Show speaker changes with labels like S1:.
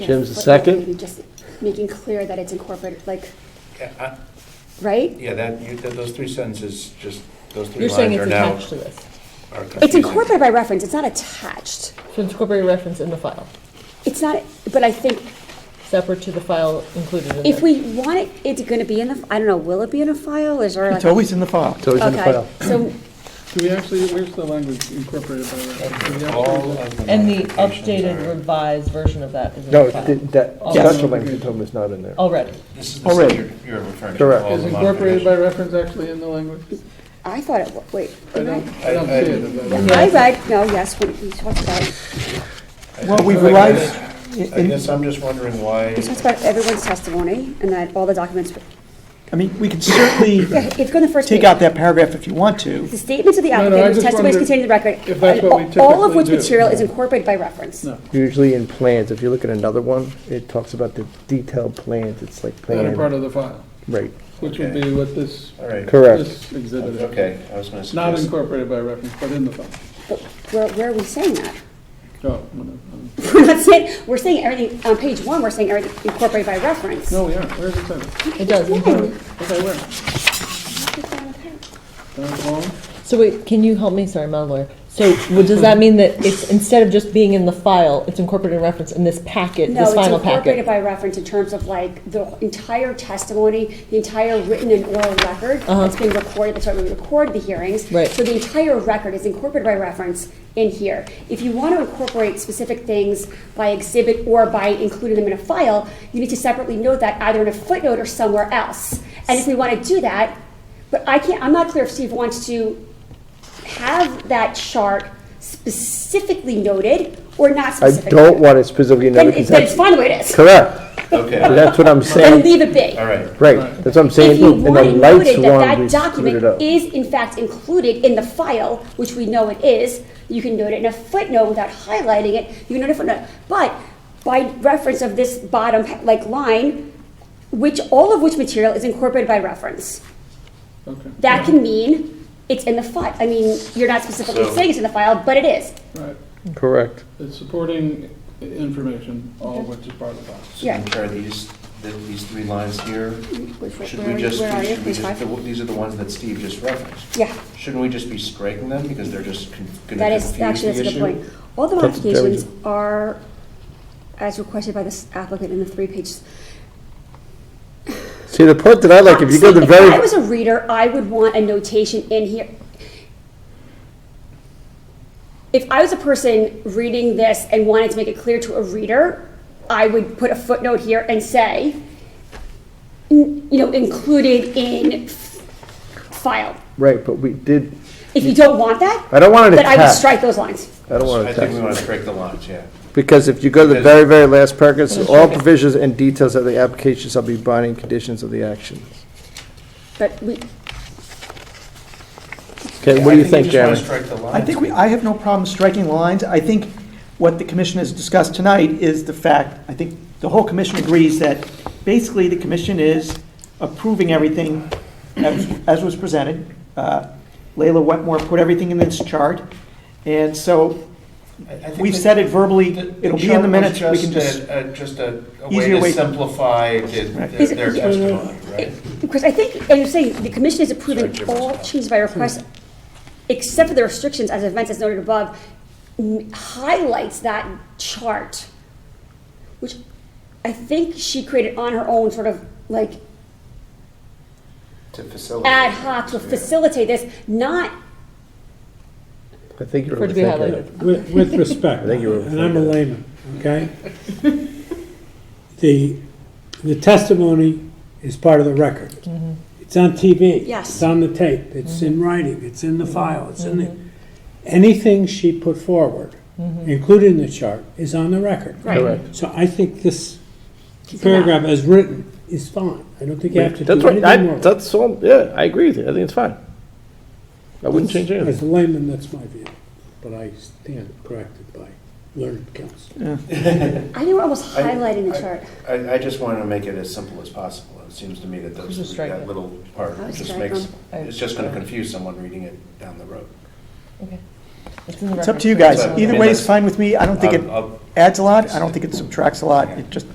S1: you know,
S2: Jim's the
S1: what-
S2: second.
S1: maybe Just making clear that it's incorporated, like,
S3: Yeah, I-
S1: right?
S3: Yeah, that, you- that- those three sentences, just, those three
S4: You're saying
S3: lines
S4: it's
S3: are now.
S4: attached to this.
S3: are
S1: It's
S3: confusing.
S1: incorporated by reference, it's not attached.
S4: So incorporate reference in the file,
S1: It's not, but I think
S4: separate to the file included in there.
S1: if we want it, it's gonna be in the, I don't know, will it be in a file, is there like?
S5: It's always in the file.
S2: It's always in the
S1: Okay,
S2: file.
S1: So,
S6: Do we actually, where's the language incorporated by reference? Do we
S3: All
S6: actually-
S3: of the
S4: And the
S3: modifications
S4: updated
S3: are-
S4: revised version of that is in
S2: No,
S4: the
S2: it
S4: file.
S2: did- that
S4: Yes.
S2: special language you told me is not in there.
S4: Already.
S3: This is the stuff
S5: Already.
S3: you're, you're referring to.
S2: Correct.
S3: all
S6: Is
S3: the
S6: incorporated by
S3: modifications.
S6: reference actually in the language?
S1: I thought it, wa- wait.
S6: I
S1: am
S6: don't, I don't see it.
S4: Yeah.
S1: I read, no, yes, we we talked about,
S5: Well, we've
S3: I- I-
S5: revised,
S3: I guess I'm just wondering why,
S1: we talked about everyone's testimony and that all the documents,
S5: I mean, we can certainly
S1: yeah, it's on the first page.
S5: take out that paragraph if you want to.
S1: The statements of the
S6: No, no,
S1: applicant,
S6: I
S1: whose
S6: just
S1: testimony is
S6: wondered
S1: contained in the record,
S6: if that's what we
S1: and all of
S6: typically
S1: which
S6: do.
S1: material is incorporated by reference.
S6: No.
S2: Usually in plans, if you look at another one, it talks about the detailed plans, it's like
S6: That are part
S2: plan,
S6: of the file,
S2: right,
S6: which would be what this,
S3: all right,
S2: correct.
S6: this exhibit is.
S3: okay, I was gonna
S6: Not
S3: suggest,
S6: incorporated by reference, but in the file.
S1: But where, where are we saying that?
S6: Oh, no,
S1: We're not saying, we're saying everything, on page one, we're saying everything incorporated by reference.
S6: no, we aren't. Where's it said?
S4: It does. incorporate.
S6: Okay, where? Down the bottom?
S4: So wait, can you help me? Sorry, I'm not a lawyer. So well, does that mean that it's, instead of just being in the file, it's incorporated in reference in this packet,
S1: No,
S4: this
S1: it's
S4: final
S1: incorporated
S4: packet?
S1: by reference in terms of like the entire testimony, the entire written and oral record that's being recorded, that's why we record the hearings.
S4: Uh-huh. Right.
S1: So the entire record is incorporated by reference in here. If you want to incorporate specific things by exhibit or by including them in a file, you need to separately note that either in a footnote or somewhere else. And if we want to do that, but I can't, I'm not clear if Steve wants to have that chart specifically noted or not
S2: I
S1: specifically.
S2: don't want it specifically
S1: Then
S2: noted,
S1: it's,
S2: 'cause
S1: then it's
S2: that's,
S1: fine the way it is.
S2: correct,
S3: okay,
S2: that's what I'm
S1: And
S2: saying,
S1: leave it be.
S3: all right.
S2: right, that's what I'm
S1: If
S2: saying,
S1: you
S2: and the
S1: want it noted
S2: lights
S1: that
S2: one, we
S1: that
S2: screwed it up.
S1: document is in fact included in the file, which we know it is, you can note it in a footnote without highlighting it, you can note it in a footnote. But by reference of this bottom, like, line, which, all of which material is incorporated by reference.
S6: Okay,
S1: That can mean it's in the file, I mean, you're not specifically
S3: So-
S1: saying it's in the file, but it is.
S6: right.
S2: Correct.
S6: It's supporting i- information, all of which is part of the file.
S1: Yeah.
S3: Which are these, th- these three lines here? Should
S1: Where
S3: we
S1: are you-
S3: just,
S1: where are you?
S3: should we
S1: Page
S3: just,
S1: five?
S3: the- these are the ones that Steve just referenced.
S1: Yeah.
S3: Shouldn't we just be striking them because they're just con- gonna
S1: That
S3: confuse
S1: is,
S3: the issue?
S1: actually, that's a good point. All the
S2: That's very
S1: modifications are, as requested by this applicant in the three pages.
S2: See, the part that I like, if you go to the
S1: Honestly, If I
S2: very,
S1: was a reader, I would want a notation in here. If I was a person reading this and wanted to make it clear to a reader, I would put a footnote here and say, n- you know, included in f- file.
S2: right, but we did,
S1: If you don't want that,
S2: I don't want it
S1: then I would
S2: attached.
S1: strike those lines.
S2: I don't want
S3: I
S2: to
S3: think we
S2: text,
S3: wanna strike the lines, yeah.
S2: because if you go to the
S3: Because-
S2: very, very last paragraph, it says, all provisions and details of the application shall be binding conditions of the action.
S1: But we,
S2: Okay, what do
S3: I
S2: you think,
S3: we just
S2: Jeremy?
S3: wanna strike the
S5: I
S3: lines.
S5: think we, I have no problem striking lines. I think what the commission has discussed tonight is the fact, I think the whole commission agrees that basically the commission is approving everything as as was presented. Uh, Layla Wetmore put everything in this chart, and so
S3: I- I think
S5: we've
S3: that-
S5: said it verbally,
S3: The-
S5: it'll be in the
S3: chart was
S5: minutes, we can
S3: a-
S5: just,
S3: a- Just a, a
S5: Easier
S3: way
S5: way-
S3: to simplify the-
S5: Right.
S3: the- their testimony, right?
S1: Because I think, and you're saying, the commission is approving
S3: Sorry, Jim,
S1: all
S3: it's not.
S1: changes by request, except for the restrictions as events as noted above, m- highlights that chart, which I think she created on her own, sort of like
S3: To facilitate.
S1: ad hoc to
S3: Yeah.
S1: facilitate this, not,
S2: I think you're
S4: For it to be
S2: overthinking it.
S4: highlighted.
S7: With, with respect,
S2: I think you were
S7: and I'm a layman, okay? The, the testimony is part of the record. It's on TV.
S1: Yes.
S7: It's on the tape, it's in writing, it's in the file, it's in the, anything she put forward, including the chart, is on the record.
S1: Right.
S2: Correct.
S7: So I think this
S1: Keep it out.
S7: paragraph as written is fine. I don't think you have to
S2: That's
S7: do
S2: right, I,
S7: anything more.
S2: that's all, yeah, I agree with you, I think it's fine. I wouldn't change anything.
S7: As a layman, that's my view, but I stand corrected by learned counsel.
S1: I think we're almost
S3: I-
S1: highlighting the
S3: I-
S1: chart.
S3: I, I just want to make it as simple as possible. It seems to me that those,
S4: Just strike
S3: that
S4: it.
S3: little part
S1: I would
S3: just
S1: strike
S3: makes,
S1: them.
S4: I-
S3: it's just going to confuse someone reading it down the road.
S4: Okay. It's in the
S5: It's up
S4: record
S5: to you
S4: for
S5: guys.
S4: everyone.
S3: Um,
S5: Either way is fine with me. I don't think it
S3: I'll- I'll-
S5: adds a lot. I don't think it subtracts a lot. It just